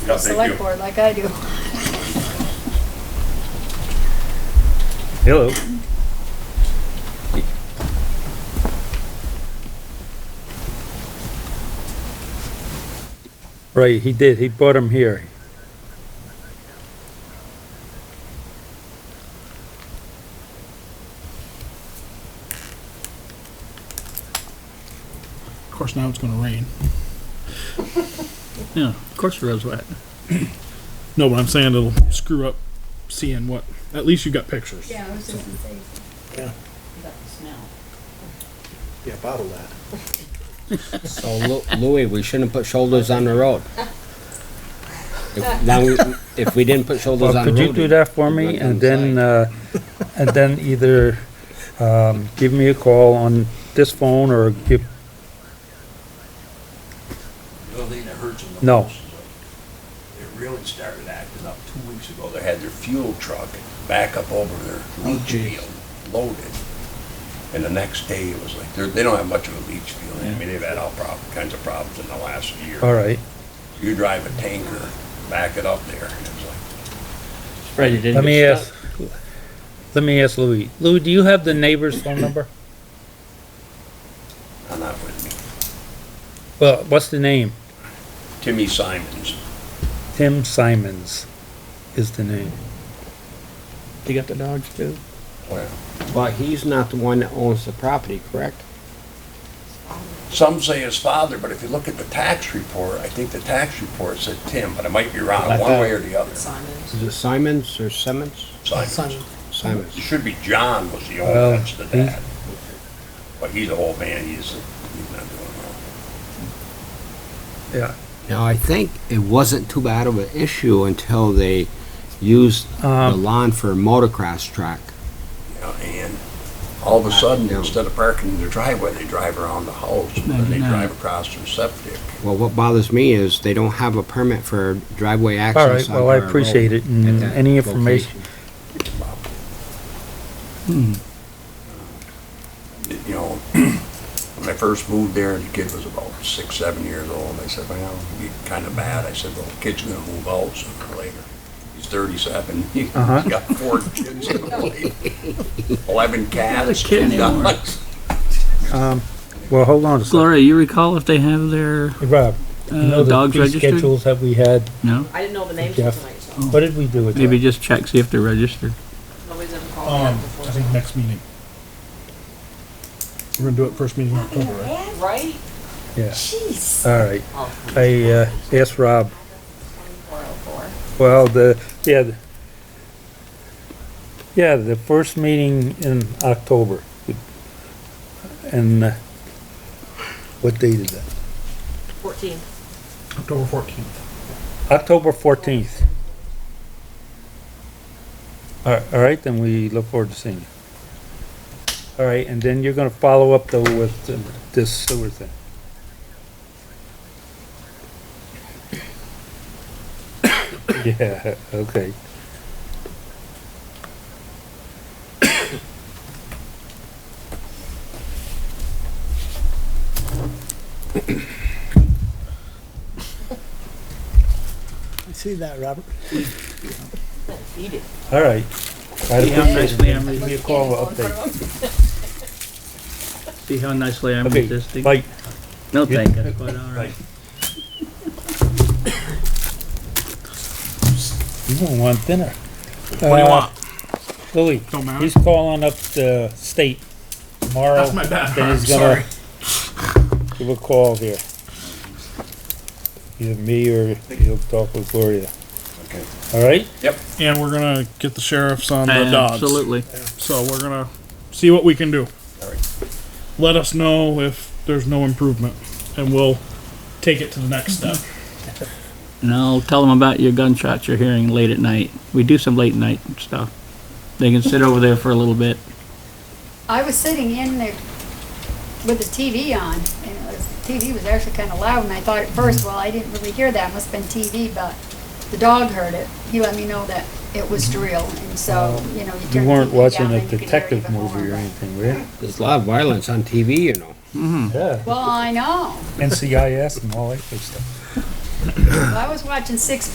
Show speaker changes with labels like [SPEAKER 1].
[SPEAKER 1] No,
[SPEAKER 2] the
[SPEAKER 1] thank you.
[SPEAKER 2] select board like I do.
[SPEAKER 3] Hello. Right, he did, he brought him here.
[SPEAKER 4] Of course, now it's going to rain.
[SPEAKER 5] Yeah, of course it was wet.
[SPEAKER 4] No, but I'm saying it'll screw up seeing what. At least you got pictures.
[SPEAKER 2] Yeah, I was just gonna say.
[SPEAKER 6] Yeah, bottle that.
[SPEAKER 7] So Oh, Lu- Louis, we shouldn't put shoulders on the road. If, now, we- if we didn't put shoulders
[SPEAKER 3] Well,
[SPEAKER 7] on the
[SPEAKER 3] could
[SPEAKER 7] road.
[SPEAKER 3] you do that for
[SPEAKER 7] it'd
[SPEAKER 3] me
[SPEAKER 7] look
[SPEAKER 3] and then,
[SPEAKER 7] inside.
[SPEAKER 3] uh, and then either, um, give me a call on this phone or give,
[SPEAKER 1] The only thing that hurts them the
[SPEAKER 3] No.
[SPEAKER 1] most is that they really started acting up two weeks ago. They had their fuel truck back up over their
[SPEAKER 3] Oh,
[SPEAKER 1] leach field loaded. And the next day it was like, they're, they don't have much of a leach field. I mean, they've had all prob, kinds of problems in the last year.
[SPEAKER 3] all right.
[SPEAKER 1] You drive a tanker, back it up there, and it's like,
[SPEAKER 5] Right, it didn't.
[SPEAKER 3] Let
[SPEAKER 5] get
[SPEAKER 3] me
[SPEAKER 5] stuck.
[SPEAKER 3] ask, let me ask Louis. Louis, do you have the neighbor's phone number?
[SPEAKER 1] I'm not with me.
[SPEAKER 3] Well, what's the name?
[SPEAKER 1] Timmy Simons.
[SPEAKER 3] Tim Simons is the name.
[SPEAKER 5] You got the dogs too?
[SPEAKER 1] Well,
[SPEAKER 7] But he's not the one that owns the property, correct?
[SPEAKER 1] Some say his father, but if you look at the tax report, I think the tax report said Tim, but I might be
[SPEAKER 7] I
[SPEAKER 1] wrong, one
[SPEAKER 7] thought-
[SPEAKER 1] way or the other.
[SPEAKER 7] Is it Simons or Simmons?
[SPEAKER 1] Simons. It
[SPEAKER 7] Simons.
[SPEAKER 1] should be John was the owner,
[SPEAKER 3] Well,
[SPEAKER 1] that's the
[SPEAKER 3] he's-
[SPEAKER 1] dad. But he's an old man, he's, he's not doing well.
[SPEAKER 3] Yeah.
[SPEAKER 7] Now, I think it wasn't too bad of an issue until they used the
[SPEAKER 3] Um,
[SPEAKER 7] lawn for a motocross track.
[SPEAKER 1] You know, And all of a sudden,
[SPEAKER 7] Yeah.
[SPEAKER 1] instead of parking in their driveway, they drive around the house, and then they
[SPEAKER 5] Mhm.
[SPEAKER 1] drive across their septic.
[SPEAKER 7] Well, what bothers me is they don't have a permit for driveway
[SPEAKER 3] all right,
[SPEAKER 7] access.
[SPEAKER 3] well, I appreciate it and any information.
[SPEAKER 1] You know, when I first moved there, the kid was about six, seven years old, I said, well, it'd be kind of bad. I said, well, the kid's gonna move out sooner or later. He's thirty-seven, he's
[SPEAKER 3] Uh-huh.
[SPEAKER 1] got four kids in the way, eleven cats,
[SPEAKER 5] kid
[SPEAKER 1] two
[SPEAKER 5] anymore.
[SPEAKER 1] dogs.
[SPEAKER 3] Um, well, hold on a second.
[SPEAKER 5] Gloria, you recall if they have their,
[SPEAKER 3] Hey, Rob, you know
[SPEAKER 5] uh,
[SPEAKER 3] the
[SPEAKER 5] dogs
[SPEAKER 3] fee
[SPEAKER 5] registered?
[SPEAKER 3] schedules that we had?
[SPEAKER 5] No?
[SPEAKER 8] I didn't know the names
[SPEAKER 3] Jeff.
[SPEAKER 8] of tonight, so
[SPEAKER 3] What did we do with
[SPEAKER 5] Maybe
[SPEAKER 3] that?
[SPEAKER 5] just check, see if they're registered.
[SPEAKER 8] nobody's ever called me
[SPEAKER 4] Um,
[SPEAKER 8] up
[SPEAKER 4] I think
[SPEAKER 8] before.
[SPEAKER 4] next meeting. We're going to do it first meeting in October, right?
[SPEAKER 8] Right?
[SPEAKER 3] Yeah,
[SPEAKER 8] Jeez.
[SPEAKER 3] all right.
[SPEAKER 8] Oh,
[SPEAKER 3] I, uh, asked Rob,
[SPEAKER 8] 404.
[SPEAKER 3] well, the, yeah, the- yeah, the first meeting in October. And, uh, what date is that?
[SPEAKER 8] 14.
[SPEAKER 4] October 14th.
[SPEAKER 3] October fourteenth. All right, all right, then we look forward to seeing you. All right, and then you're gonna follow up though with uh, this sewer thing. Yeah, okay.
[SPEAKER 9] I see that, Robert.
[SPEAKER 8] Eat it.
[SPEAKER 3] All right. Try to
[SPEAKER 5] See how
[SPEAKER 3] push it.
[SPEAKER 5] nicely I'm,
[SPEAKER 3] Give me a call or update.
[SPEAKER 5] see how nicely I'm
[SPEAKER 3] Okay,
[SPEAKER 5] resisting?
[SPEAKER 3] like,
[SPEAKER 5] No, thank you, quite all right.
[SPEAKER 3] you don't want dinner. Uh,
[SPEAKER 4] What do you want?
[SPEAKER 3] Louis,
[SPEAKER 4] Don't matter.
[SPEAKER 3] he's calling up the state tomorrow.
[SPEAKER 4] That's my bad.
[SPEAKER 3] Then
[SPEAKER 4] I'm
[SPEAKER 3] he's gonna
[SPEAKER 4] sorry.
[SPEAKER 3] give a call here. Either me or he'll talk with Gloria.
[SPEAKER 1] Okay.
[SPEAKER 3] All right?
[SPEAKER 4] And we're going to get the sheriffs on the dogs.
[SPEAKER 5] Absolutely.
[SPEAKER 4] So we're going to see what we can do.
[SPEAKER 1] All right.
[SPEAKER 4] Let us know if there's no improvement, and we'll take it to the next step.
[SPEAKER 5] And I'll tell them about your gunshots you're hearing late at night. We do some late night stuff. They can sit over there for a little bit.
[SPEAKER 2] I was sitting in there with the TV on, and it was, the TV was actually kind of loud, and I thought at first, well, I didn't really hear that, must've been TV, but the dog heard it. He let me know that it was drill, and so, you know, you turn
[SPEAKER 3] You
[SPEAKER 2] the
[SPEAKER 3] weren't
[SPEAKER 2] TV
[SPEAKER 3] watching
[SPEAKER 2] down
[SPEAKER 3] a
[SPEAKER 2] and you could hear it
[SPEAKER 3] detective
[SPEAKER 2] even more,
[SPEAKER 3] movie or
[SPEAKER 2] but-
[SPEAKER 3] anything, were you?
[SPEAKER 7] There's a lot of violence on TV, you know.
[SPEAKER 3] Yeah.
[SPEAKER 2] Well, I know.
[SPEAKER 3] NCIS and all that good stuff.
[SPEAKER 2] Well, I was watching Six